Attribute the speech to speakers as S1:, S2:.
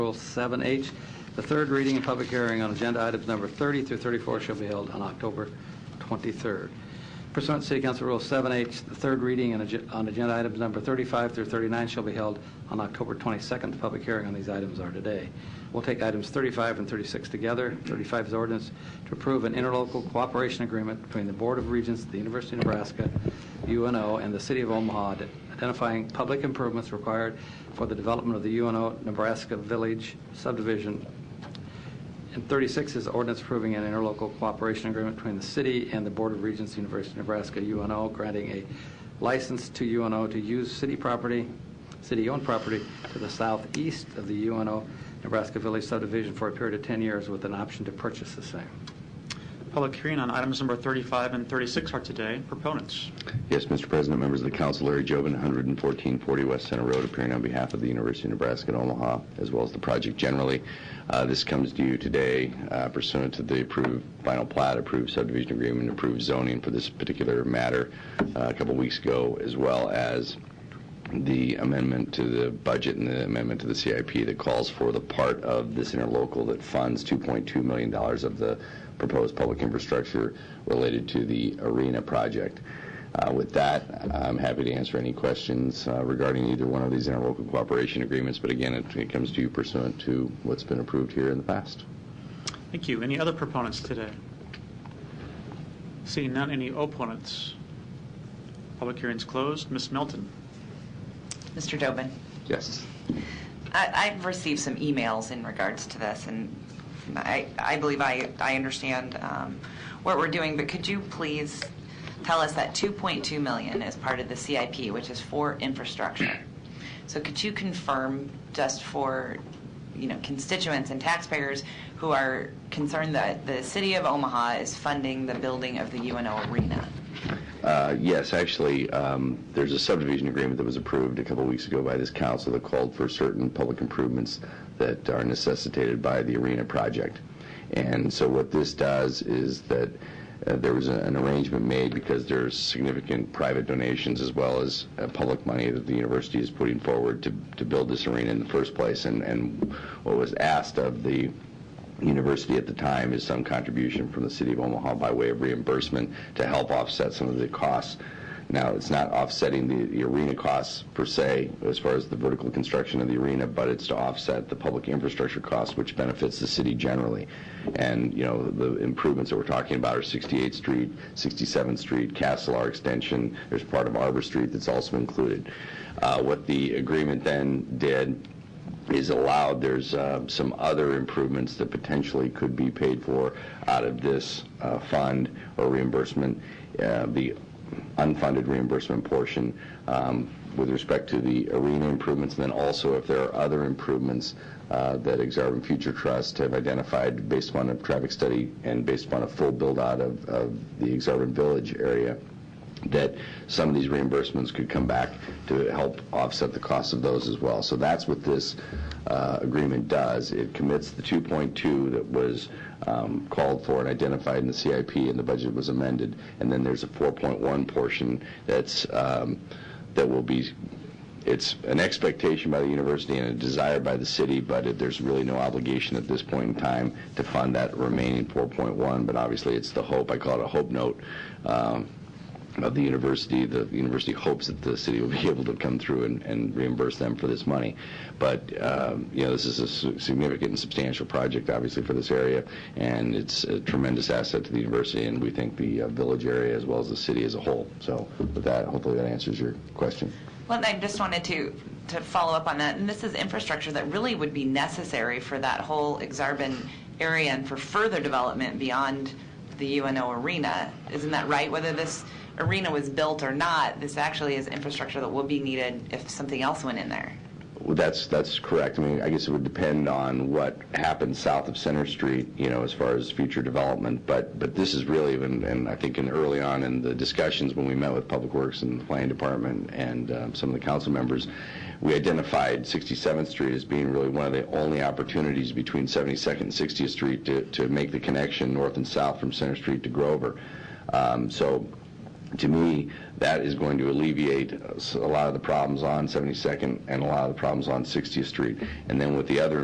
S1: Bill 7H. The third reading and public hearing on agenda items number 30 through 34 shall be held on October 23rd. Pursuant to City Council Rule 7H, the third reading and ag- on agenda items number 35 through 39 shall be held on October 22nd. The public hearing on these items are today. We'll take items 35 and 36 together. 35 is ordinance to approve an interlocal cooperation agreement between the Board of Regents of the University of Nebraska, UNO, and the City of Omaha identifying public improvements required for the development of the UNO Nebraska Village subdivision and 36 is ordinance approving an interlocal cooperation agreement between the city and the Board of Regents, University of Nebraska, UNO, granting a license to UNO to use city property, city-owned property to the southeast of the UNO Nebraska Village subdivision for a period of 10 years with an option to purchase the same.
S2: Public hearing on items number 35 and 36 are today. Proponents.
S3: Yes, Mr. President, members of the council, Larry Jobin, 11440 West Center Road, appearing on behalf of the University of Nebraska at Omaha, as well as the project generally. Uh, This comes to you today uh, pursuant to the approved final plat, approved subdivision agreement, approved zoning for this particular matter uh, a couple weeks ago, as well as the amendment to the budget and the amendment to the CIP that calls for the part of this interlocal that funds $2.2 million of the proposed public infrastructure related to the arena project. Uh, With that, I'm happy to answer any questions uh, regarding either one of these interlocal cooperation agreements, but again, it it comes to you pursuant to what's been approved here in the past.
S2: Thank you. Any other proponents today? Seeing none, any opponents? Public hearing's closed. Ms. Melton.
S4: Mr. Dobin,
S3: Yes.
S4: I, I've received some emails in regards to this, and I, I believe I, I understand um, what we're doing, but could you please tell us that 2.2 million is part of the CIP, which is for infrastructure? So could you confirm just for, you know, constituents and taxpayers who are concerned that the city of Omaha is funding the building of the UNO Arena?
S3: Uh, Yes, actually, um, there's a subdivision agreement that was approved a couple weeks ago by this council that called for certain public improvements that are necessitated by the arena project. And so what this does is that uh, there was a- an arrangement made because there's significant private donations as well as uh, public money that the university is putting forward to to build this arena in the first place. And- And what was asked of the university at the time is some contribution from the city of Omaha by way of reimbursement to help offset some of the costs. Now, it's not offsetting the, the arena costs per se, as far as the vertical construction of the arena, but it's to offset the public infrastructure costs, which benefits the city generally. And, you know, the improvements that we're talking about are 68th Street, 67th Street, Castlear Extension, there's part of Arbor Street that's also included. Uh, What the agreement then did is allowed, there's uh, some other improvements that potentially could be paid for out of this uh, fund or reimbursement. Uh, The unfunded reimbursement portion um, with respect to the arena improvements, and then also if there are other improvements uh, that Exarban Future Trust have identified based upon a traffic study and based upon a full build-out of of the Exarban Village area, that some of these reimbursements could come back to help offset the cost of those as well. So that's what this uh, agreement does. It commits the 2.2 that was um, called for and identified in the CIP, and the budget was amended, and then there's a 4.1 portion that's, um, that will be, it's an expectation by the university and a desire by the city, but it- there's really no obligation at this point in time to fund that remaining 4.1, but obviously, it's the hope, I call it a hope note, um, of the university. The university hopes that the city will be able to come through and- and reimburse them for this money. But, um, you know, this is a su- significant and substantial project, obviously, for this area, and it's a tremendous asset to the university, and we think the uh, village area as well as the city as a whole. So with that, hopefully that answers your question.
S4: Well, and I just wanted to, to follow up on that, and this is infrastructure that really would be necessary for that whole Exarban area and for further development beyond the UNO arena. Isn't that right? Whether this arena was built or not, this actually is infrastructure that will be needed if something else went in there.
S3: Well, that's, that's correct. I mean, I guess it would depend on what happens south of Center Street, you know, as far as future development, but, but this is really, and, and I think in early on in the discussions when we met with Public Works and the Planning Department and um, some of the council members, we identified 67th Street as being really one of the only opportunities between 72nd and 60th Street to, to make the connection north and south from Center Street to Grover. Um, So to me, that is going to alleviate uh, s- a lot of the problems on 72nd and a lot of the problems on 60th Street. And then with the other